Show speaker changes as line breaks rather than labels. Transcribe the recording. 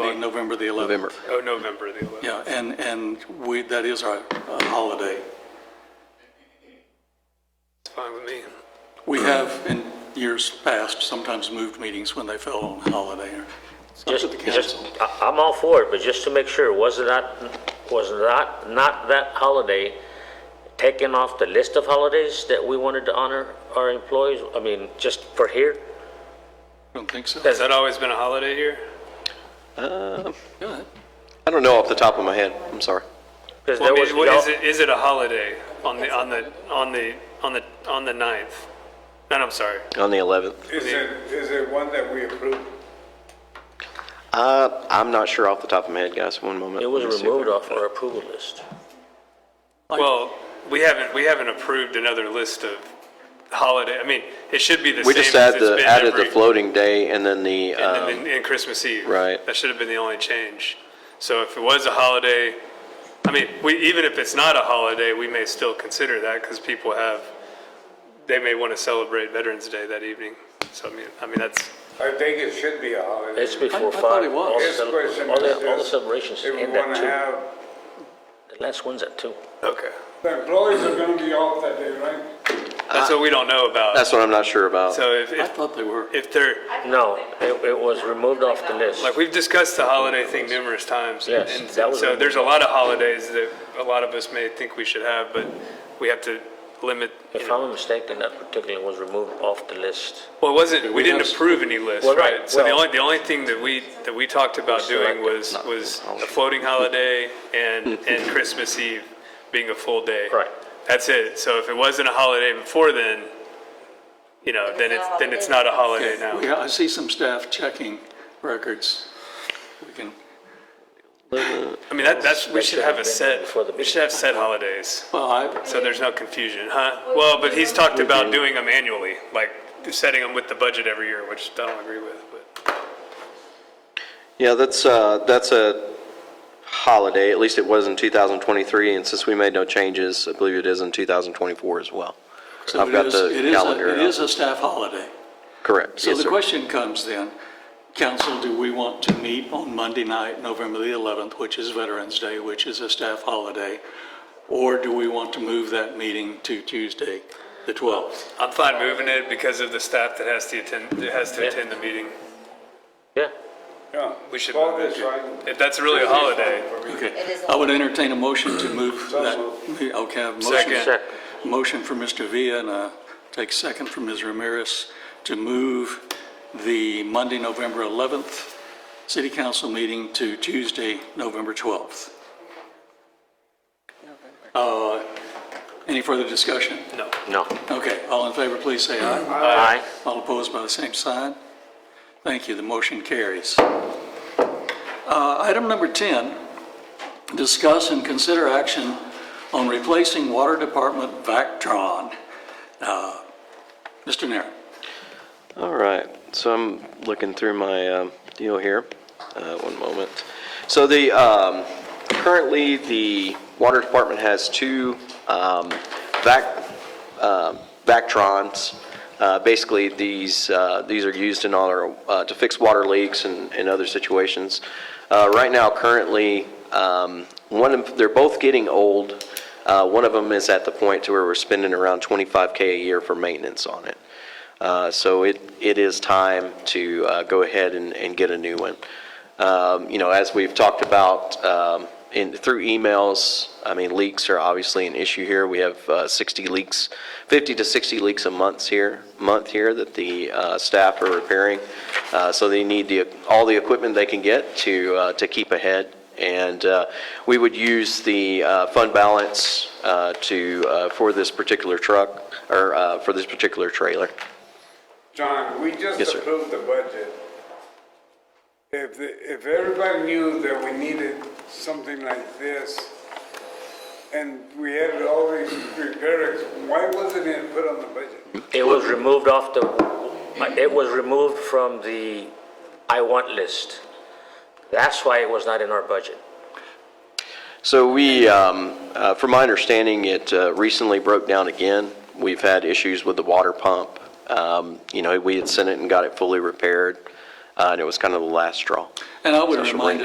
uh, November the 11th.
November.
Oh, November the 11th.
Yeah, and, and we, that is our uh, holiday.
It's fine with me.
We have in years past sometimes moved meetings when they fell on holiday. or It's up
Just,
to the
just,
council.
I- I'm all for it, but just to make sure, was it not, was not, not that holiday taken off the list of holidays that we wanted to honor our employees? I mean, just for here?
Don't think so.
Has that always been a holiday here?
Good.
I don't know off the top of my head, I'm sorry.
Because
Well,
there
I
was,
mean, what is
y'all-
it, is it a holiday on the, on the, on the, on the, on the ninth? No, no, I'm sorry.
On the 11th.
Is it, is it one that we approved?
Uh, I'm not sure off the top of my head, guys, one moment.
it was
Let me see if I
removed
can
off
find
our
it.
approval list.
Well, we haven't, we haven't approved another list of holiday, I mean, it should be the same.
We just
as
add
it's
the,
been
added the
every-
floating day and then the,
And,
um,
and, and Christmas Eve.
right.
That should have been the only change. So if it was a holiday, I mean, we, even if it's not a holiday, we may still consider that because people have, they may want to celebrate Veterans Day that evening. So I mean, I mean, that's,
I think it should be a holiday.
It's before
I
five.
thought it was.
All the
His
cele-
question
all the-
is
All the
just
celebrations
If
end
we
at
want to
two.
have,
The last one's at two.
okay.
the employees are going to be off that day, right?
That's what we don't know about.
That's what I'm not sure about.
So if,
I
if,
thought they were.
if they're,
No, it, it was removed off the list.
like, we've discussed the holiday thing numerous times.
Yes,
and
that was-
So there's a lot of holidays that a lot of us may think we should have, but we have to limit, you
If
know.
I'm mistaken, that particular was removed off the list.
Well, it wasn't, we didn't
have-
approve any list,
Well, right,
right? So the
well-
only, the only thing that we, that we talked about doing
Selected,
was,
not
was
holiday.
a floating holiday and, and Christmas Eve being a full day.
Right.
That's it. So if it wasn't a holiday before then, you know, then it's, then it's not a holiday now.
Yeah, I see some staff checking records. We can,
I mean, that, that's, we should
That should
have a
have been
set,
before the
we should have set holidays,
well, I,
so there's no confusion, huh? Well, but he's talked about doing them annually, like setting them with the budget every year, which I don't agree with, but.
Yeah, that's, uh, that's a holiday, at least it was in 2023, and since we made no changes, I believe it is in 2024 as well.
so
I've
it
got
is,
the
it is,
calendar
a- it
up.
is a staff holiday.
Correct.
So
Yes,
the
sir.
question comes then, council, do we want to meet on Monday night, November the 11th, which is Veterans Day, which is a staff holiday? Or do we want to move that meeting to Tuesday, the 12th?
I'm fine moving it because of the staff that has to attend, that has to attend the meeting.
Yeah,
Yeah.
We should
Well,
move
that's
it.
right.
If that's really a holiday,
Okay, I would entertain a motion to move that. Okay, I have a motion.
Second.
Second.
Motion for Mr. Villa and a take second from Ms. Ramirez to move the Monday, November 11th city council meeting to Tuesday, November 12th. Uh, Any further discussion?
no.
no.
Okay, all in favor, please say aye.
Aye.
All opposed by the same sign? Thank you, the motion carries. Uh, Item number 10, discuss and consider action on replacing Water Department Vactron. Uh, Mr. Nara,
All right, so I'm looking through my um, deal here. Uh, One moment. So the, um, currently, the water department has two um, vac, um, Vactrons. Uh, Basically, these, uh, these are used in all our, uh, to fix water leaks and, and other situations. Uh, Right now, currently, um, one of, they're both getting old. Uh, One of them is at the point to where we're spending around 25K a year for maintenance on it. Uh, So it, it is time to uh, go ahead and, and get a new one. Um, You know, as we've talked about um, in, through emails, I mean, leaks are obviously an issue here. We have uh, 60 leaks, 50 to 60 leaks a month here, month here that the uh, staff are repairing. Uh, So they need the, all the equipment they can get to, uh, to keep ahead. And uh, we would use the uh, fund balance uh, to, uh, for this particular truck, or uh, for this particular trailer.
John, we just
Yes, sir.
approved the budget. If, the- if everybody knew that we needed something like this, and we had all these repairs, why wasn't it put on the budget?
It was removed off the, it was removed from the I want list. That's why it was not in our budget.
So we, um, uh, from my understanding, it uh, recently broke down again. We've had issues with the water pump. Um, You know, we had sent it and got it fully repaired, uh, and it was kind of the last straw.
and I would
Social
remind